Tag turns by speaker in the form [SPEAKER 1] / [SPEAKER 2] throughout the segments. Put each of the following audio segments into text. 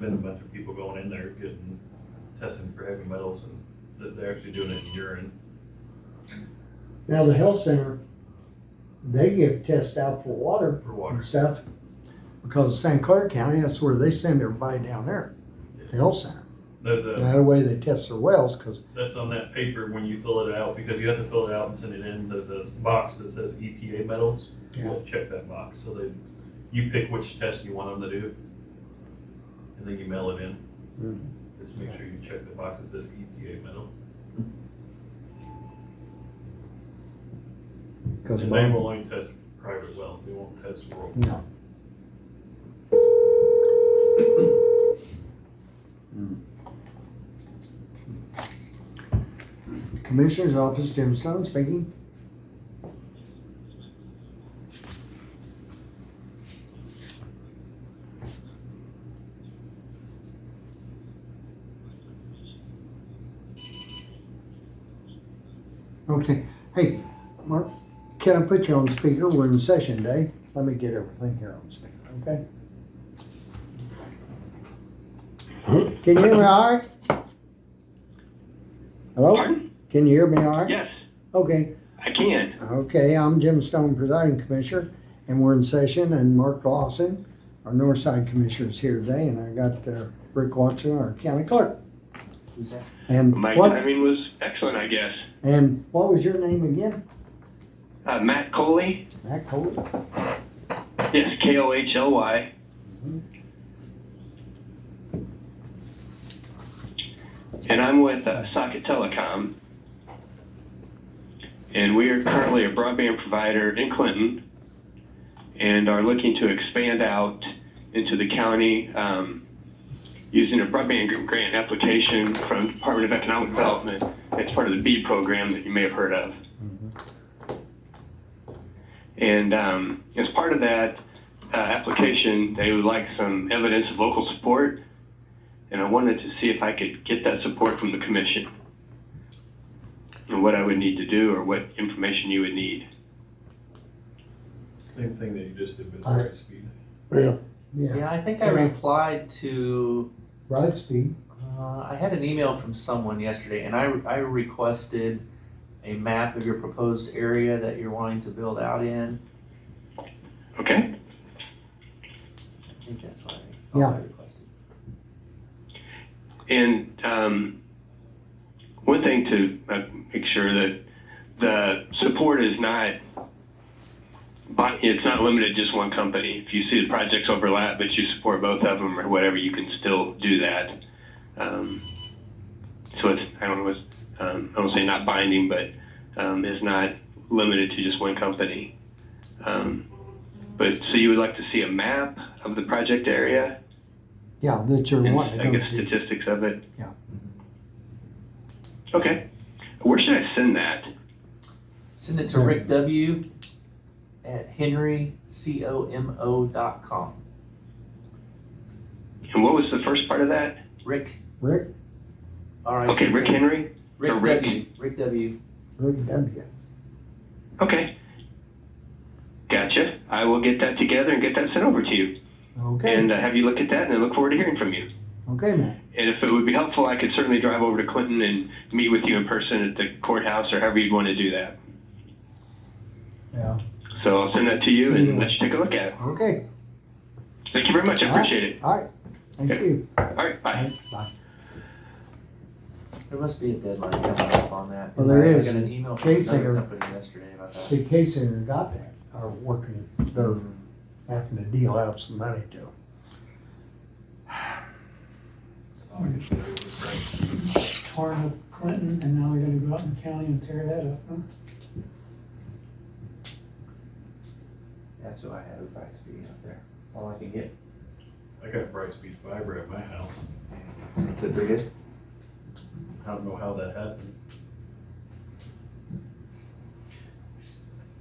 [SPEAKER 1] been a bunch of people going in there getting testing for heavy metals and that they're actually doing it in urine.
[SPEAKER 2] Now, the health center, they give tests out for water
[SPEAKER 1] For
[SPEAKER 2] and
[SPEAKER 1] water.
[SPEAKER 2] stuff, because St. Clair County, that's where they send everybody down there, the health center.
[SPEAKER 1] There's a,
[SPEAKER 2] That way they test their wells, because
[SPEAKER 1] that's on that paper when you fill it out, because you have to fill it out and send it in, there's this box that says EPA metals.
[SPEAKER 2] Yeah.
[SPEAKER 1] We'll check that box, so they, you pick which test you want them to do. And then you mail it in.
[SPEAKER 2] Mhm.
[SPEAKER 1] Just make sure you check the box that says EPA metals.
[SPEAKER 2] Because
[SPEAKER 1] And they will only test private wells, they won't test rural.
[SPEAKER 2] No. Mm. Commissioner's office, Jim Stone speaking. Okay, hey, Mark, can I put you on speaker? We're in session day. Let me get everything here on speaker, okay? Can you hear me all right? Hello?
[SPEAKER 3] Pardon?
[SPEAKER 2] Can you hear me all right?
[SPEAKER 3] Yes,
[SPEAKER 2] Okay,
[SPEAKER 3] I can.
[SPEAKER 2] okay, I'm Jim Stone, presiding commissioner, and we're in session, and Mark Lawson, our Northside Commissioner is here today, and I got uh, Rick Watson, our county clerk. And
[SPEAKER 3] My
[SPEAKER 2] what,
[SPEAKER 3] timing was excellent, I guess.
[SPEAKER 2] and what was your name again?
[SPEAKER 3] Uh, Matt Coley,
[SPEAKER 2] Matt Coley?
[SPEAKER 3] yes, K O H L Y.
[SPEAKER 2] Mhm.
[SPEAKER 3] And I'm with uh, Socket Telecom. And we are currently a broadband provider in Clinton and are looking to expand out into the county um, using a broadband grant application from Department of Economic Development. It's part of the B program that you may have heard of. And um, as part of that uh, application, they would like some evidence of local support. And I wanted to see if I could get that support from the commission and what I would need to do or what information you would need.
[SPEAKER 1] Same thing that you just did with the right speed.
[SPEAKER 2] Yeah,
[SPEAKER 4] Yeah, I think I
[SPEAKER 2] Yeah.
[SPEAKER 4] replied to,
[SPEAKER 2] right, Steve.
[SPEAKER 4] uh, I had an email from someone yesterday and I, I requested a map of your proposed area that you're wanting to build out in.
[SPEAKER 3] Okay?
[SPEAKER 4] I think that's what I,
[SPEAKER 2] Yeah.
[SPEAKER 4] I requested.
[SPEAKER 3] And um, one thing to uh, make sure that the support is not, but it's not limited to just one company. If you see the projects overlap, but you support both of them or whatever, you can still do that. Um, so it's I don't know, it's, um, I don't say not binding, but um, it's not limited to just one company. Um, but so you would like to see a map of the project area
[SPEAKER 2] Yeah, that you're
[SPEAKER 3] and
[SPEAKER 2] wanting to
[SPEAKER 3] I
[SPEAKER 2] go
[SPEAKER 3] guess
[SPEAKER 2] to.
[SPEAKER 3] statistics of it. Mm-hmm.
[SPEAKER 2] Yeah.
[SPEAKER 3] Okay. Where should I send that?
[SPEAKER 4] Send it to Rick W at henrycomo dot com.
[SPEAKER 3] And what was the first part of that?
[SPEAKER 4] Rick,
[SPEAKER 2] Rick,
[SPEAKER 4] R I C K.
[SPEAKER 3] Okay, Rick Henry. or
[SPEAKER 4] Rick
[SPEAKER 3] Rick?
[SPEAKER 4] W, Rick W.
[SPEAKER 2] Rick W.
[SPEAKER 3] Okay. Gotcha. I will get that together and get that sent over to you,
[SPEAKER 2] Okay,
[SPEAKER 3] and uh, have you look at that, and I look forward to hearing from you.
[SPEAKER 2] okay, man.
[SPEAKER 3] And if it would be helpful, I could certainly drive over to Clinton and meet with you in person at the courthouse or however you'd want to do that.
[SPEAKER 2] Yeah.
[SPEAKER 3] So I'll send that to you
[SPEAKER 2] Yeah.
[SPEAKER 3] and let you take a look at it.
[SPEAKER 2] Okay,
[SPEAKER 3] Thank you very much. I appreciate it.
[SPEAKER 2] Mm-hmm. all right, thank
[SPEAKER 3] Okay.
[SPEAKER 2] you.
[SPEAKER 3] All right. Bye.
[SPEAKER 4] There must be a deadline coming up on that.
[SPEAKER 2] Well, there
[SPEAKER 4] I-
[SPEAKER 2] is.
[SPEAKER 4] I got an email from
[SPEAKER 2] Case
[SPEAKER 4] another
[SPEAKER 2] here.
[SPEAKER 4] company yesterday about that. Mm-hmm.
[SPEAKER 2] See, Case Center got that, are working, they're having to deal out some money to them.
[SPEAKER 5] part of Clinton, and now we gotta go out in the county and tear that up, huh?
[SPEAKER 4] That's what I had advice being out there. All I can get.
[SPEAKER 1] I got bright speed fiber at my house.
[SPEAKER 4] Good for you.
[SPEAKER 1] I don't know how that happened.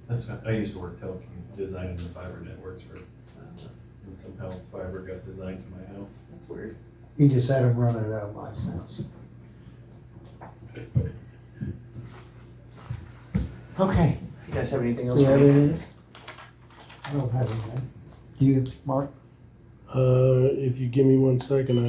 [SPEAKER 1] That's, why- I used to work telecom, designing the fiber networks for, uh, and somehow fiber got designed to my house.
[SPEAKER 4] Weird.
[SPEAKER 2] He just had them running out of my house. Okay.
[SPEAKER 4] You guys have anything
[SPEAKER 2] Do
[SPEAKER 4] else?
[SPEAKER 2] you
[SPEAKER 4] for
[SPEAKER 2] have
[SPEAKER 4] me?
[SPEAKER 2] anything? I don't have anything. Do you, Mark?
[SPEAKER 6] Uh, if you give me one second, I